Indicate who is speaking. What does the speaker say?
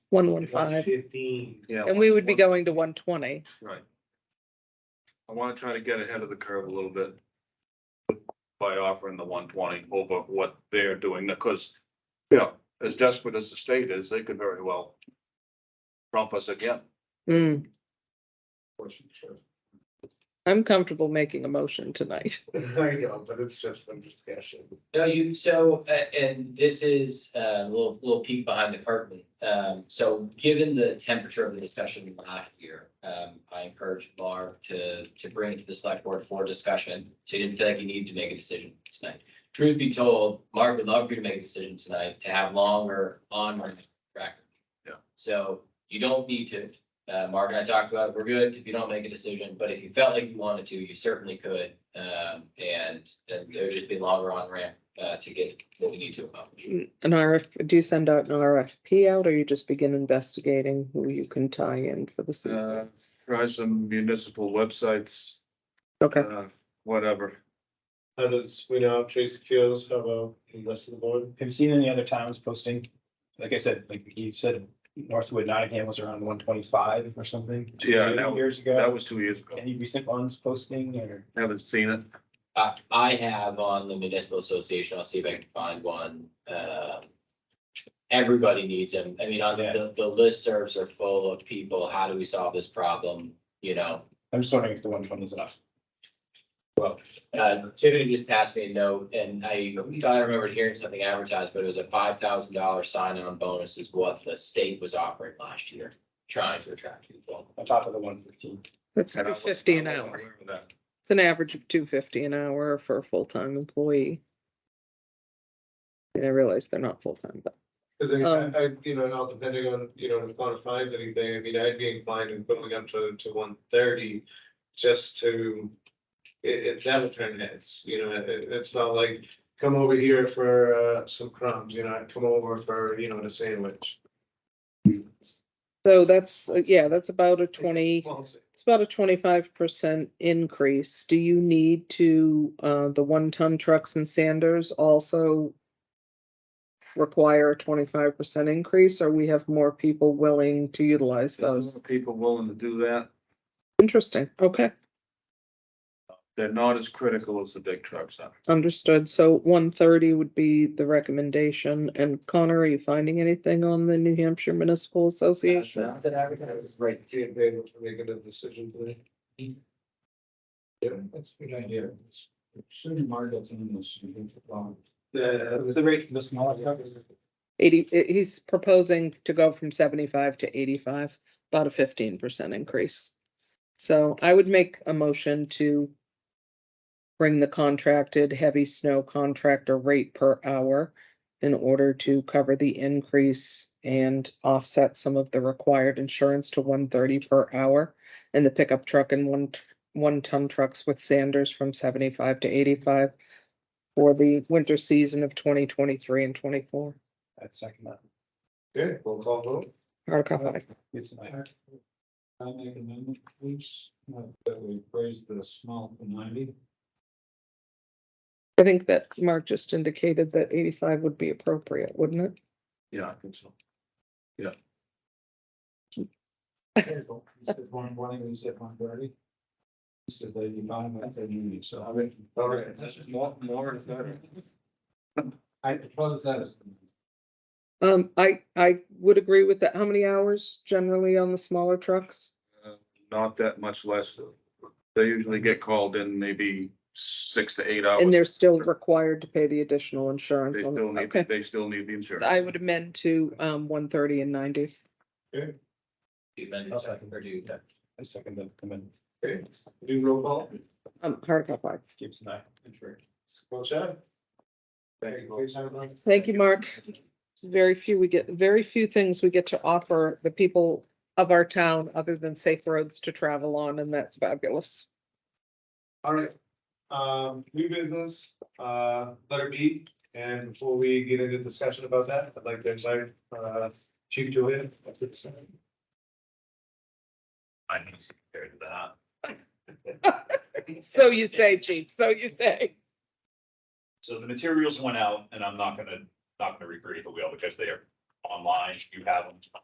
Speaker 1: one one five,
Speaker 2: Fifteen, yeah.
Speaker 1: and we would be going to one twenty.
Speaker 2: Right. I wanna try to get ahead of the curve a little bit. By offering the one twenty over what they're doing, because, you know, as desperate as the state is, they could very well. Trump us again.
Speaker 1: Mm, I'm comfortable making a motion tonight.
Speaker 3: I know, but it's just been discussion.
Speaker 4: No, you, so, a- and this is uh, a little, little peek behind the curtain. Um, so given the temperature of the discussion last year, um, I encouraged Barb to, to bring it to the select board for discussion. So you didn't feel like you needed to make a decision tonight. Truth be told, Mark would love for you to make a decision tonight to have longer on my track.
Speaker 2: Yeah.
Speaker 4: So you don't need to. Uh, Mark and I talked about it. We're good if you don't make a decision, but if you felt like you wanted to, you certainly could. Um, and and there'd just be longer on ramp uh, to get what we need to accomplish.
Speaker 1: An RF, do you send out an RFP out or you just begin investigating who you can tie in for the
Speaker 2: Uh,
Speaker 1: season?
Speaker 2: try some municipal websites,
Speaker 1: Okay,
Speaker 2: uh, whatever.
Speaker 3: How does, we know, Tracy feels, how about the rest of the board?
Speaker 5: Have you seen any other towns posting? Like I said, like you said, Northwood Nottingham was around one twenty-five or something.
Speaker 2: Yeah, that was-
Speaker 5: Years
Speaker 2: That
Speaker 5: ago,
Speaker 2: was two years ago.
Speaker 5: any recent ones posting or?
Speaker 2: Haven't seen it.
Speaker 4: I, I have on the municipal association, I'll see if I can find one. Um, Everybody needs them. I mean, on the, the listservs are full of people. How do we solve this problem? You know,
Speaker 5: I'm just wondering if the one twenty is enough.
Speaker 4: Uh, Tiffany just passed me a note and I thought I remembered hearing something advertised, but it was a five thousand dollar sign-on bonus is what the state was offering last year, trying to attract people.
Speaker 5: On top of the one fifteen,
Speaker 1: that's
Speaker 2: And I
Speaker 1: two
Speaker 2: was-
Speaker 1: fifty an
Speaker 2: I was
Speaker 1: hour.
Speaker 2: aware of that.
Speaker 1: It's an average of two fifty an hour for a full-time employee. And I realize they're not full-time, but
Speaker 3: Cause I,
Speaker 1: Um.
Speaker 3: I, you know, now depending on, you know, if one finds anything, I mean, I'd be inclined in going up to, to one thirty just to. It, it, that'll turn heads, you know, it, it's not like, come over here for, uh, some crumbs, you know, come over for, you know, a sandwich.
Speaker 1: so that's, uh, yeah, that's about a twenty,
Speaker 3: Well,
Speaker 1: it's about a twenty-five percent increase. Do you need to, uh, the one-ton trucks and sanders also require a twenty-five percent increase, or we have more people willing to utilize
Speaker 2: There's
Speaker 1: those?
Speaker 2: more People willing to do that.
Speaker 1: Interesting, okay,
Speaker 2: They're not as critical as the big trucks are.
Speaker 1: understood. So one thirty would be the recommendation. And Connor, are you finding anything on the New Hampshire Municipal Association?
Speaker 4: Not that I
Speaker 3: I
Speaker 4: recognize.
Speaker 3: was right, to be able to make a decision today. Yeah, that's a good idea.
Speaker 6: Shouldn't Margaret's in this, you think, um,
Speaker 3: The,
Speaker 5: the rate for the smaller trucks?
Speaker 1: Eighty, eh, he's proposing to go from seventy-five to eighty-five, about a fifteen percent increase. So I would make a motion to bring the contracted heavy snow contractor rate per hour in order to cover the increase and offset some of the required insurance to one thirty per hour and the pickup truck and one, one-ton trucks with Sanders from seventy-five to eighty-five for the winter season of twenty twenty-three and twenty-four.
Speaker 5: I'd second that.
Speaker 3: okay, we'll call vote.
Speaker 1: Article five.
Speaker 5: It's an idea.
Speaker 6: I make an amendment, please, uh, that we raise the small to ninety.
Speaker 1: I think that Mark just indicated that eighty-five would be appropriate, wouldn't it?
Speaker 2: Yeah, I think so.
Speaker 6: You said one twenty, you said one thirty. You said eighty-five, I said ninety, so I mean.
Speaker 3: All right.
Speaker 2: More, more is better.
Speaker 6: I propose that as.
Speaker 1: Um, I, I would agree with that. How many hours generally on the smaller trucks?
Speaker 2: Uh, Not that much less. They usually get called in maybe six to eight hours.
Speaker 1: And they're still required to pay the additional insurance.
Speaker 2: They
Speaker 1: on-
Speaker 2: still need,
Speaker 1: Okay,
Speaker 2: they still need the insurance.
Speaker 1: I would amend to, um, one thirty and ninety.
Speaker 4: Do you amend
Speaker 5: I'll
Speaker 4: it,
Speaker 5: second.
Speaker 4: or do you-
Speaker 5: I second that, the amendment,
Speaker 3: Okay, do roll call.
Speaker 1: Um, Hardikoff, aye.
Speaker 5: keeps an eye.
Speaker 3: Well, Chad?
Speaker 2: Thank you.
Speaker 3: Please have a-
Speaker 1: Thank you, Mark. It's Very few, we get, very few things we get to offer the people of our town other than safe roads to travel on, and that's fabulous.
Speaker 3: All right, um, new business, uh, letter B, and before we get into discussion about that, I'd like to invite, uh, Chief Julian. up to the side.
Speaker 4: I need to compare to that.
Speaker 1: So you say, chief, so you say.
Speaker 7: So the materials went out and I'm not gonna, not gonna recreate the wheel because they are online. You have them